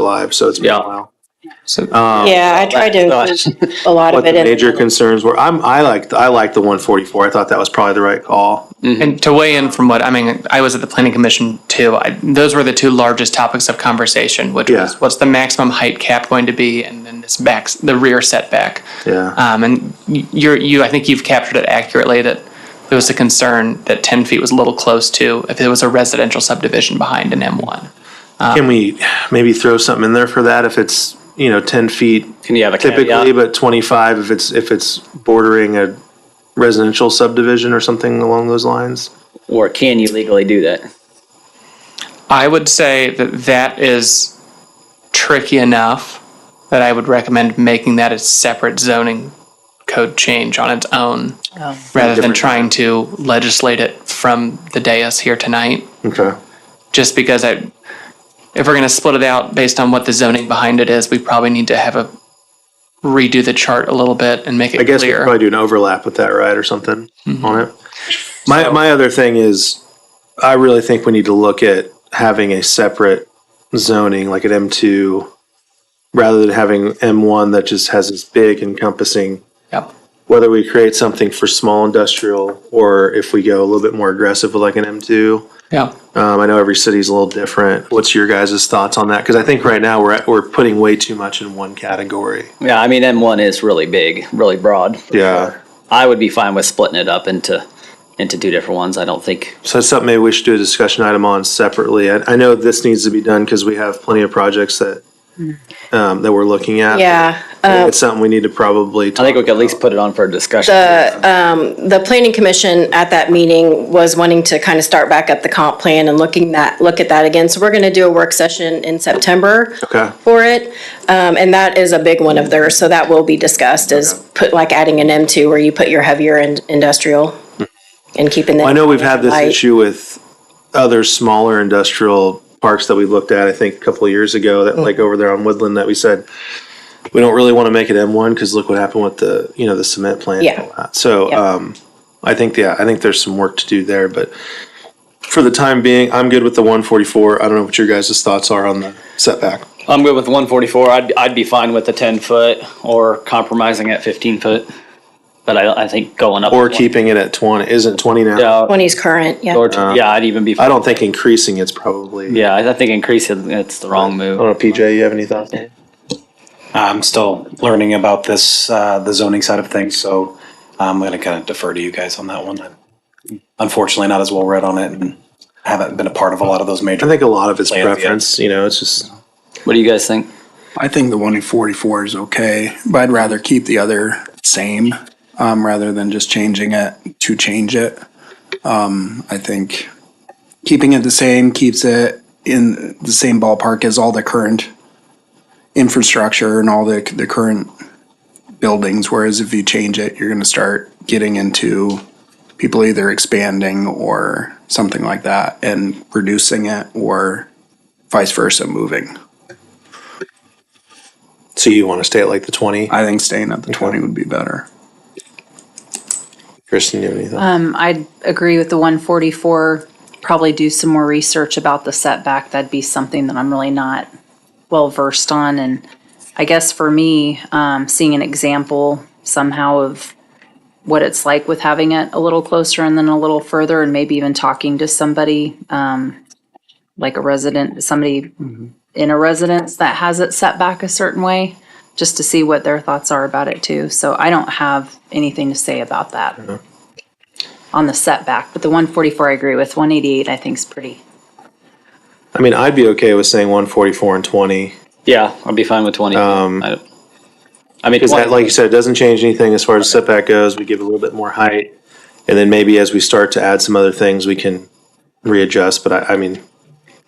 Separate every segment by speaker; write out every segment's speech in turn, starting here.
Speaker 1: live, so it's been
Speaker 2: Yeah.
Speaker 1: a while.
Speaker 2: So,
Speaker 1: Um,
Speaker 3: Yeah, I tried to
Speaker 2: That's
Speaker 3: include a lot
Speaker 1: What
Speaker 3: of
Speaker 1: the
Speaker 3: it in.
Speaker 1: major concerns were, I'm, I liked, I liked the one forty-four. I thought that was probably the right call.
Speaker 2: and to weigh in from what I mean, I was at the planning commission too. I, those were the two largest topics of conversation, which
Speaker 1: Yeah.
Speaker 2: was what's the maximum height cap going to be, and then this back the rear setback.
Speaker 1: Yeah.
Speaker 2: Um, and y- you're you, I think you've captured it accurately that there was a concern that ten feet was a little close to if it was a residential subdivision behind an M one.
Speaker 1: Can we maybe throw something in there for that if it's, you know, ten feet
Speaker 4: Can you have a
Speaker 1: typically,
Speaker 4: caveat?
Speaker 1: but twenty-five if it's, if it's bordering a residential subdivision or something along those lines?
Speaker 4: Or can you legally do that?
Speaker 2: I would say that that is tricky enough that I would recommend making that a separate zoning code change on its own rather than
Speaker 1: Different-
Speaker 2: trying to legislate it from the dais here tonight.
Speaker 1: Okay.
Speaker 2: Just because I, if we're going to split it out based on what the zoning behind it is, we probably need to have a redo the chart a little bit and make it
Speaker 1: I guess we could
Speaker 2: clear.
Speaker 1: probably do an overlap with that, right, or something on it. My my other thing is, I really think we need to look at having a separate zoning, like at M two, rather than having M one that just has this big encompassing.
Speaker 2: Yep.
Speaker 1: Whether we create something for small industrial, or if we go a little bit more aggressive with like an M two.
Speaker 2: Yeah.
Speaker 1: Um, I know every city's a little different. What's your guys' thoughts on that? Because I think right now we're at, we're putting way too much in one category.
Speaker 4: Yeah, I mean, M1 is really big, really broad.
Speaker 1: Yeah.
Speaker 4: I would be fine with splitting it up into into two different ones. I don't think
Speaker 1: So that's something maybe we should do a discussion item on separately. I, I know this needs to be done because we have plenty of projects that, um, that we're looking at.
Speaker 3: Yeah, uh,
Speaker 1: It's something we need to probably.
Speaker 4: I think we could at least put it on for a discussion.
Speaker 3: uh, um, the planning commission at that meeting was wanting to kind of start back up the comp plan and looking that, look at that again. So we're going to do a work session in September
Speaker 1: Okay.
Speaker 3: for it. Um, and that is a big one of theirs, so that will be discussed is put, like adding an M2 where you put your heavier in- industrial and keeping that.
Speaker 1: Hmm. I know we've had this
Speaker 3: light.
Speaker 1: issue with other smaller industrial parks that we looked at, I think, a couple of years ago, that like over there on Woodland that we said, we don't really want to make it M one because look what happened with the, you know, the cement plant. and
Speaker 3: Yeah.
Speaker 1: all that. So,
Speaker 3: Yep.
Speaker 1: um, I think, yeah, I think there's some work to do there, but for the time being, I'm good with the one forty-four. I don't know what your guys' thoughts are on the setback.
Speaker 4: I'm good with 144. I'd, I'd be fine with the 10 foot or compromising at 15 foot. But I, I think going up
Speaker 1: Or keeping it at twenty, isn't twenty now?
Speaker 4: yeah,
Speaker 3: 20's current, yeah.
Speaker 4: or t- yeah, I'd even be.
Speaker 1: I don't think increasing it's probably.
Speaker 4: Yeah, I I think increasing it's the wrong
Speaker 1: I
Speaker 4: move.
Speaker 1: don't know, PJ, you have any thoughts?
Speaker 5: I'm still learning about this, uh, the zoning side of things, so um, I'm going to kind of defer to you guys on that one. I'm Unfortunately, not as well read on it and haven't been a part of a lot of those
Speaker 1: I
Speaker 5: major.
Speaker 1: think a lot of it's
Speaker 5: Land, yeah.
Speaker 1: preference, you know, it's just,
Speaker 4: What do you guys think?
Speaker 6: I think the one in 44 is okay, but I'd rather keep the other same um, rather than just changing it to change it. Um, I think keeping it the same keeps it in the same ballpark as all the current infrastructure and all the, the current buildings. Whereas if you change it, you're going to start getting into people either expanding or something like that and reducing it or vice versa moving.
Speaker 1: so you want to stay at like the twenty?
Speaker 6: I think staying at the 20 would be better.
Speaker 1: Kristen, you have anything?
Speaker 7: I'd agree with the 144, probably do some more research about the setback. That'd be something that I'm really not well versed on. And I guess for me, um, seeing an example somehow of what it's like with having it a little closer and then a little further, and maybe even talking to somebody, um, like a resident, somebody in a residence that has it set back a certain way, just to see what their thoughts are about it too. So I don't have anything to say about that on the setback, but the one forty-four I agree with, one eighty-eight I think is pretty.
Speaker 1: I mean, I'd be okay with saying 144 and 20
Speaker 4: Yeah, I'd be fine with 20. Um, I, I mean,
Speaker 1: because
Speaker 4: 20
Speaker 1: that, like you said, it doesn't change anything as far as setback goes. We give a little bit more height, and then maybe as we start to add some other things, we can readjust. But I, I mean,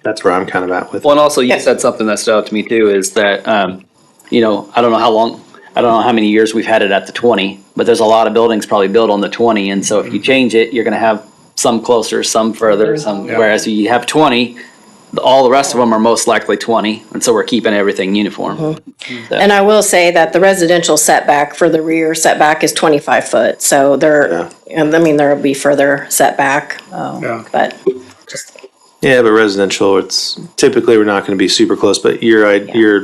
Speaker 1: that's where I'm kind of at with.
Speaker 4: Well, and also you said something that stood out to me too is that um, you know I don't know how long I don't know how many years we've had it at the twenty, but there's a lot of buildings probably built on the twenty, and so if you change it, you're going to have some closer, some further, some. Whereas you have twenty, the- all the rest of them are most likely twenty, and so we're keeping everything uniform.
Speaker 3: And I will say that the residential setback for the rear setback is 25 foot, so there, and I mean, there'll be further setback,
Speaker 6: Yeah.
Speaker 3: but
Speaker 1: Yeah, but residential, it's typically, we're not gonna be super close, but your, i- your